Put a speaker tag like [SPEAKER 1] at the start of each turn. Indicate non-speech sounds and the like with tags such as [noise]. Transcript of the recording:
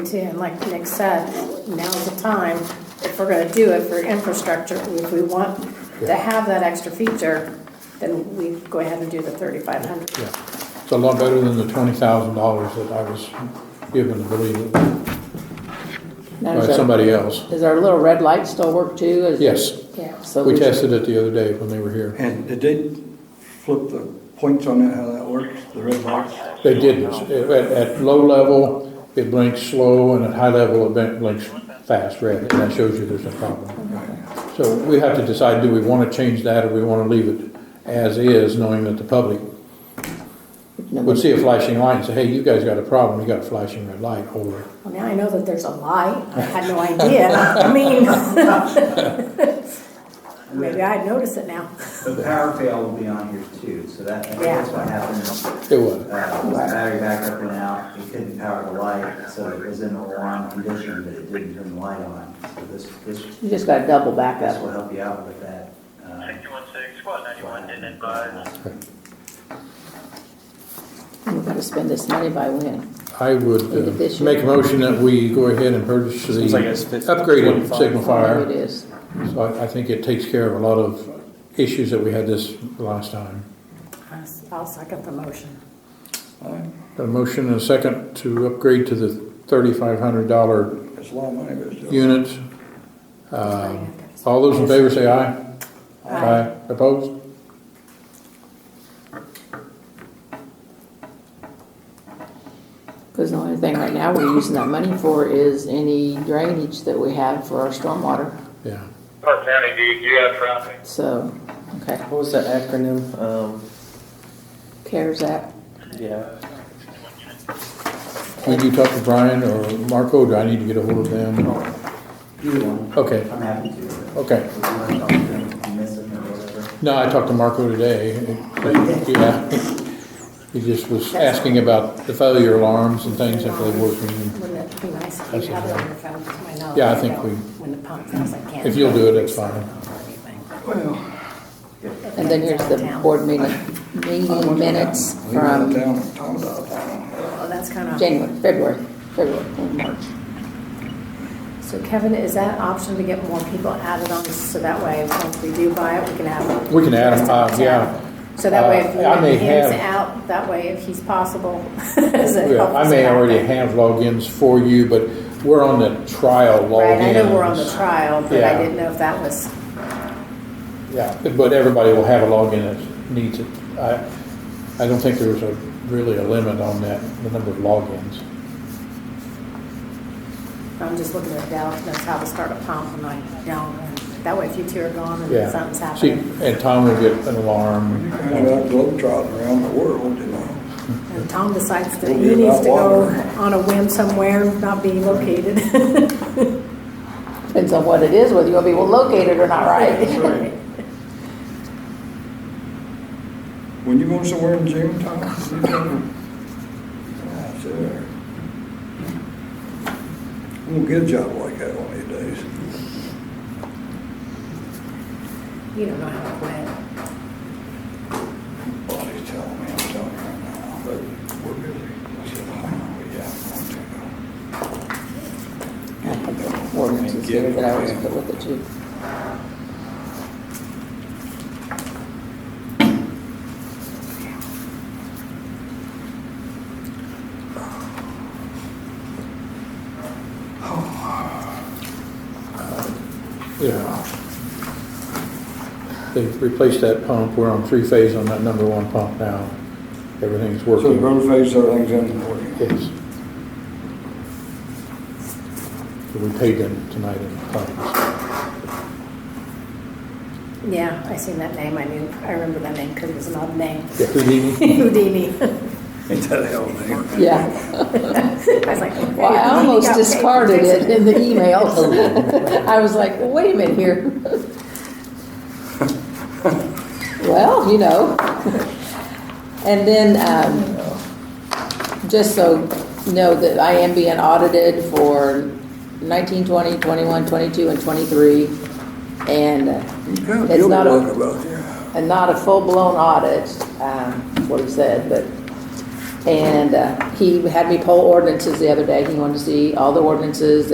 [SPEAKER 1] too, and like Nick said, now's the time, if we're gonna do it for infrastructure, if we want to have that extra feature, then we go ahead and do the thirty-five hundred.
[SPEAKER 2] Yeah, it's a lot better than the twenty thousand dollars that I was given to believe by
[SPEAKER 3] Now, does our,
[SPEAKER 2] somebody else.
[SPEAKER 3] does our little red light still work too? Is-
[SPEAKER 2] Yes,
[SPEAKER 1] Yeah.
[SPEAKER 3] So
[SPEAKER 2] we
[SPEAKER 3] we should-
[SPEAKER 2] tested it the other day when they were here.
[SPEAKER 4] And did they flip the points on that, how that works, the red lights?
[SPEAKER 2] They didn't, at, at low level, it blinks slow, and at high level, it blinks fast red, and that shows you there's a problem. So we have to decide, do we wanna change that, or we wanna leave it as is, knowing that the public would see a flashing light and say, hey, you guys got a problem, you got a flashing red light, or
[SPEAKER 1] Well, now I know that there's a light, I had no
[SPEAKER 2] [laughs]
[SPEAKER 1] idea, I mean. [laughs] Maybe I'd notice it now.
[SPEAKER 5] The power fail will be on here too, so that, I think that's what happened.
[SPEAKER 2] it was.
[SPEAKER 5] Uh, the battery backup went out, it couldn't power the light, so it was in alarm condition, but it didn't turn the light on. So this, this,
[SPEAKER 3] You just got double
[SPEAKER 5] this
[SPEAKER 3] backup.
[SPEAKER 5] will help you out with that. uh,
[SPEAKER 6] 616, squad 91, didn't advise.
[SPEAKER 3] We're gonna spend this money by when?
[SPEAKER 2] I would uh,
[SPEAKER 3] This year.
[SPEAKER 2] make a motion that we go ahead and purchase the
[SPEAKER 7] Seems like it's fif-
[SPEAKER 2] upgraded
[SPEAKER 7] 25.
[SPEAKER 2] signal
[SPEAKER 3] Whatever It
[SPEAKER 2] fire.
[SPEAKER 3] is.
[SPEAKER 2] So I, I think it takes care of a lot of issues that we had this last time.
[SPEAKER 1] I'll second the motion.
[SPEAKER 2] Got a motion and a second to upgrade to the thirty-five hundred dollar
[SPEAKER 4] It's a lot of money, but it's. still-
[SPEAKER 2] unit. Um, All those in favor say aye. Aye. Opposed?
[SPEAKER 3] Because the only thing right now we're using that money for is any drainage that we have for our stormwater.
[SPEAKER 2] Yeah.
[SPEAKER 6] Park County, do you have traffic?
[SPEAKER 3] So, okay,
[SPEAKER 7] What was the acronym? Um,
[SPEAKER 3] CARES Act.
[SPEAKER 7] yeah.
[SPEAKER 2] Would you talk to Brian or Marco? Do I need to get a hold of them?
[SPEAKER 5] Either one.
[SPEAKER 2] Okay.
[SPEAKER 5] I'm happy to. but
[SPEAKER 2] Okay.
[SPEAKER 5] If you want to talk to them, if you miss them or whatever.
[SPEAKER 2] No, I talked to Marco today. Yeah. He just was asking about the failure alarms and things if they're working.
[SPEAKER 1] Wouldn't it be nice if you had it on your phone, to my knowledge?
[SPEAKER 2] Yeah, I think
[SPEAKER 1] know
[SPEAKER 2] we-
[SPEAKER 1] When the pump fails, I can't.
[SPEAKER 2] If you'll do it, that's fine.
[SPEAKER 3] And then here's the board meeting, meeting minutes
[SPEAKER 4] We went
[SPEAKER 3] from
[SPEAKER 4] down and talked about that.
[SPEAKER 1] Oh, that's kind of.
[SPEAKER 3] January, February, February, and March.
[SPEAKER 1] So Kevin, is that option to get more people added on, so that way, once we do buy it, we can add them?
[SPEAKER 2] We can add them, uh, yeah.
[SPEAKER 1] So that way, if
[SPEAKER 2] Uh, I may
[SPEAKER 1] he hands
[SPEAKER 2] have-
[SPEAKER 1] out, that way, if he's possible, [laughs] does it
[SPEAKER 2] Yeah,
[SPEAKER 1] help
[SPEAKER 2] I
[SPEAKER 1] us
[SPEAKER 2] may
[SPEAKER 1] out?
[SPEAKER 2] already have logins for you, but we're on the trial
[SPEAKER 1] Right, I know we're on the
[SPEAKER 2] logins.
[SPEAKER 1] trial, but
[SPEAKER 2] Yeah.
[SPEAKER 1] I didn't know if that was,
[SPEAKER 2] Yeah, but- but everybody will have a login that needs it. I, I don't think there's a, really a limit on that, the number of logins.
[SPEAKER 1] I'm just looking at Dell, knows how to start a pump, and I don't, and that way, if you two are gone
[SPEAKER 2] Yeah.
[SPEAKER 1] and something's
[SPEAKER 2] See,
[SPEAKER 1] happening,
[SPEAKER 2] and Tom will get an alarm.
[SPEAKER 4] Kind of like globetrotting around the world, you know.
[SPEAKER 1] and Tom decides that
[SPEAKER 4] We'll
[SPEAKER 1] he
[SPEAKER 4] get
[SPEAKER 1] needs
[SPEAKER 4] that
[SPEAKER 1] to go
[SPEAKER 4] water.
[SPEAKER 1] on a whim somewhere, not be located.
[SPEAKER 3] Depends on what it is, whether you'll be located or not, right?
[SPEAKER 4] When you going somewhere in June, Tom? you tell me. Ah, sure. I'm gonna get a job like that one of these days.
[SPEAKER 1] [laughs] You don't know how to quit.
[SPEAKER 4] Body's telling me, I'm telling you right now, but we're busy. I said, I know, yeah, I'm
[SPEAKER 3] I had the ordinances here that I was put with it too.
[SPEAKER 2] Yeah. They've replaced that pump. We're on three phase on that number one pump now. Everything's
[SPEAKER 4] going to. So the
[SPEAKER 2] working.
[SPEAKER 4] road phase, everything's in order.
[SPEAKER 2] Yes. So we paid them tonight in claims.
[SPEAKER 1] Yeah, I seen that name, I knew, I remember that name because it was an odd name.
[SPEAKER 2] Yeah, Houdini?
[SPEAKER 1] [laughs] Houdini.
[SPEAKER 4] Ain't that a hell of a thing?
[SPEAKER 3] Yeah,
[SPEAKER 1] I was like. okay,
[SPEAKER 3] well, I
[SPEAKER 1] Houdini
[SPEAKER 3] almost
[SPEAKER 1] got paid for
[SPEAKER 3] discarded it
[SPEAKER 1] fixing
[SPEAKER 3] in the email. I was like, well, wait a minute here. Well, you know. And then, um, just so you know that I am being audited for 19, 20, 21, 22, and twenty-three. And uh,
[SPEAKER 4] Yeah,
[SPEAKER 3] it's
[SPEAKER 4] you'll
[SPEAKER 3] not a.
[SPEAKER 4] talk about that.
[SPEAKER 3] and not a full-blown audit, um, is what he said, but And uh, he had me poll ordinances the other day. He wanted to see all the ordinances